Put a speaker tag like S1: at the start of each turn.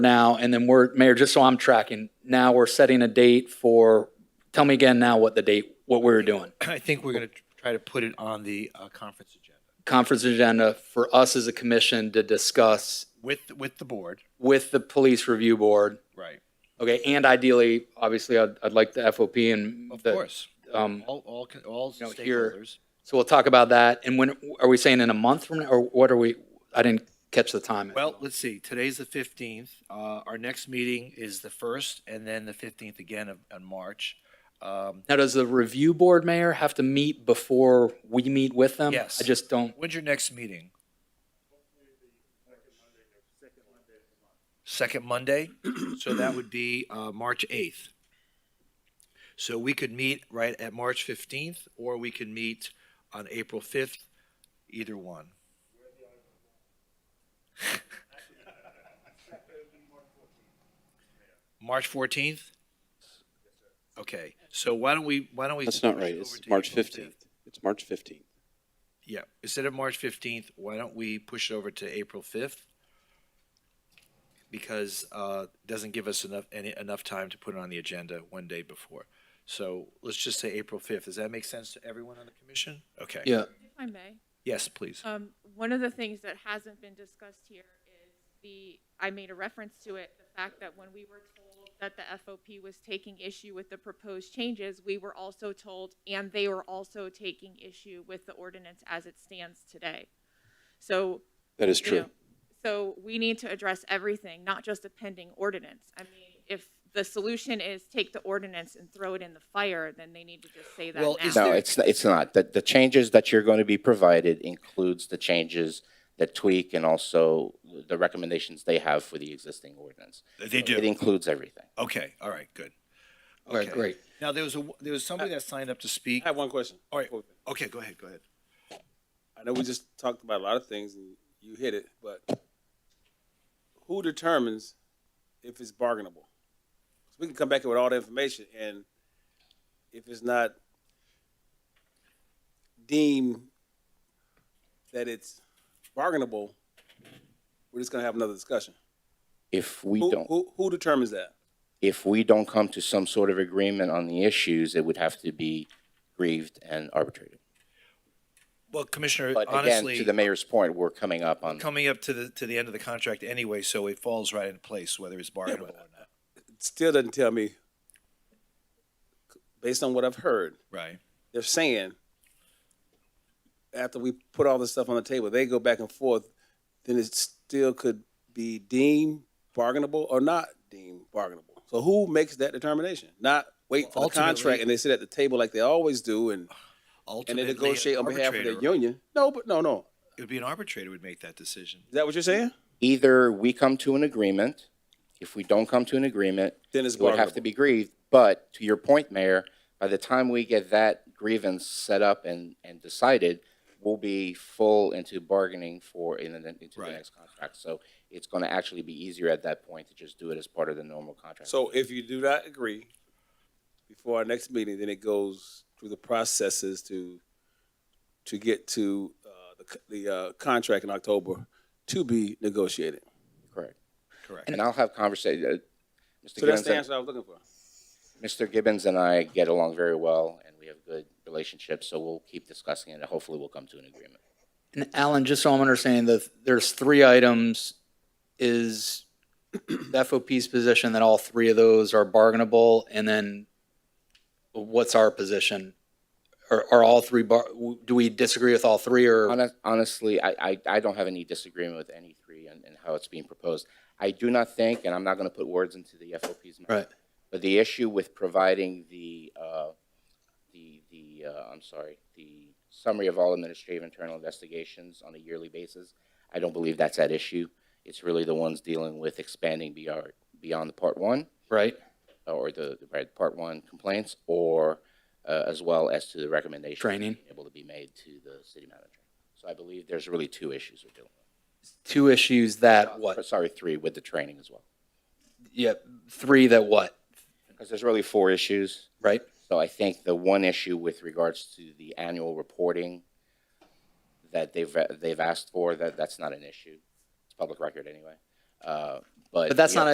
S1: now, and then we're, Mayor, just so I'm tracking, now we're setting a date for, tell me again now what the date, what we're doing.
S2: I think we're going to try to put it on the uh, conference agenda
S1: Conference agenda for us as a commission to discuss
S2: with, with the board.
S1: with the police review board.
S2: Right.
S1: Okay, and ideally, obviously, I'd, I'd like the FOP and.
S2: Of
S1: the-
S2: course.
S1: um,
S2: All, all, con- all
S1: know, here-
S2: stakeholders.
S1: So we'll talk about that. And when, are we saying in a month from now, or what are we, I didn't catch the time.
S2: Well, let's see, today's the 15th. Uh, Our next meeting is the 1st and then the 15th again of, on March. Um,
S1: Now, does the review board, Mayor, have to meet before we meet with them?
S2: Yes.
S1: I just don't,
S2: Um, When's your next meeting? Second Monday? So that would be uh, March 8th. So we could meet right at March 15th, or we could meet on April 5th, either one. March 14th? Okay, so why don't we, why don't we?
S3: That's not
S2: switch
S3: right.
S2: over
S3: It's
S2: to
S3: March
S2: April 5th?
S3: 15th. It's March 15th.
S2: Yeah, instead of March fifteenth, why don't we push it over to April fifth? Because uh, it doesn't give us enough, any, enough time to put it on the agenda one day before. So let's just say April fifth. Does that make sense to everyone on the commission? Okay.
S1: yeah.
S4: If I may,
S2: Yes, please.
S4: um, one of the things that hasn't been discussed here is the, I made a reference to it, the fact that when we were told that the FOP was taking issue with the proposed changes, we were also told, and they were also taking issue with the ordinance as it stands today. So,
S3: That is
S4: you know,
S3: true.
S4: so we need to address everything, not just a pending ordinance. I mean, if the solution is take the ordinance and throw it in the fire, then they need to just say that
S2: Well, is
S4: now.
S5: No, it's, it's not. The, the changes that you're going to be provided includes the changes that tweak and also the recommendations they have for the existing ordinance.
S2: They
S5: It includes everything.
S2: Okay, all right, good.
S1: All right,
S2: Okay.
S1: great.
S2: Now, there was a, there was somebody that signed up to speak.
S6: I have one question.
S2: All right. Okay, go ahead, go ahead.
S6: I know we just talked about a lot of things and you hit it, but who determines if it's bargainable? 'Cause we can come back here with all the information and if it's not deemed that it's bargainable, we're just gonna have another discussion.
S5: If we
S6: Who,
S5: don't,
S6: who, who determines that?
S5: if we don't come to some sort of agreement on the issues, it would have to be grieved and arbitrated.
S2: Well, Commissioner,
S5: But again,
S2: honestly.
S5: to the mayor's point, we're coming up on,
S2: Coming up to the, to the end of the contract anyway, so it falls right into place, whether it's bargainable or not.
S6: It still doesn't tell me, based on what I've heard,
S2: Right.
S6: they're saying after we put all this stuff on the table, they go back and forth, then it still could be deemed bargainable or not deemed bargainable. So who makes that determination? Not wait for the
S2: Ultimately-
S6: contract and they sit at the table like they always do and, and they
S2: Ultimately,
S6: negotiate
S2: an
S6: on behalf of their
S2: arbitrator-
S6: union. No, but no, no.
S2: It would be an arbitrator would make that decision.
S6: Is that what you're saying?
S5: either we come to an agreement. If we don't come to an agreement,
S6: Then it's
S5: it would have to
S6: bargainable.
S5: be grieved. But to your point, Mayor, by the time we get that grievance set up and, and decided, we'll be full into bargaining for in the, into
S2: Right.
S5: the next contract. So it's going to actually be easier at that point to just do it as part of the normal contract.
S6: So if you do not agree before our next meeting, then it goes through the processes to to get to uh, the c- the uh, contract in October to be negotiated.
S5: correct.
S2: Correct.
S5: And I'll have conversation. Uh, Mr.
S6: So that's
S5: Gibbons
S6: the
S5: and,
S6: answer I was looking for.
S5: Mr. Gibbons and I get along very well, and we have good relationships. So we'll keep discussing it, and hopefully, we'll come to an agreement.
S1: And Alan, just so I'm understanding, the, there's three items. Is the FOP's position that all three of those are bargainable? And then what's our position? Are, are all three, bar- do we disagree with all three or?
S5: Honest- Honestly, I, I, I don't have any disagreement with any three and, and how it's being proposed. I do not think, and I'm not going to put words into the FOP's mouth.
S1: Right.
S5: But the issue with providing the, uh, the, the, uh, I'm sorry, the summary of all administrative internal investigations on a yearly basis, I don't believe that's at issue. It's really the ones dealing with expanding beyond, beyond the part one
S1: Right?
S5: uh, or the, the right, part one complaints or uh, as well as to the recommendations
S1: Training.
S5: being able to be made to the city manager. So I believe there's really two issues we're dealing with.
S1: Two issues that
S5: Or,
S1: what?
S5: Sorry, three with the training as well.
S1: Yeah, three that what,
S5: Because there's really four issues.
S1: right?
S5: So I think the one issue with regards to the annual reporting that they've, they've asked for, that, that's not an issue. It's public record anyway. Uh, But.
S1: But that's
S5: the-
S1: not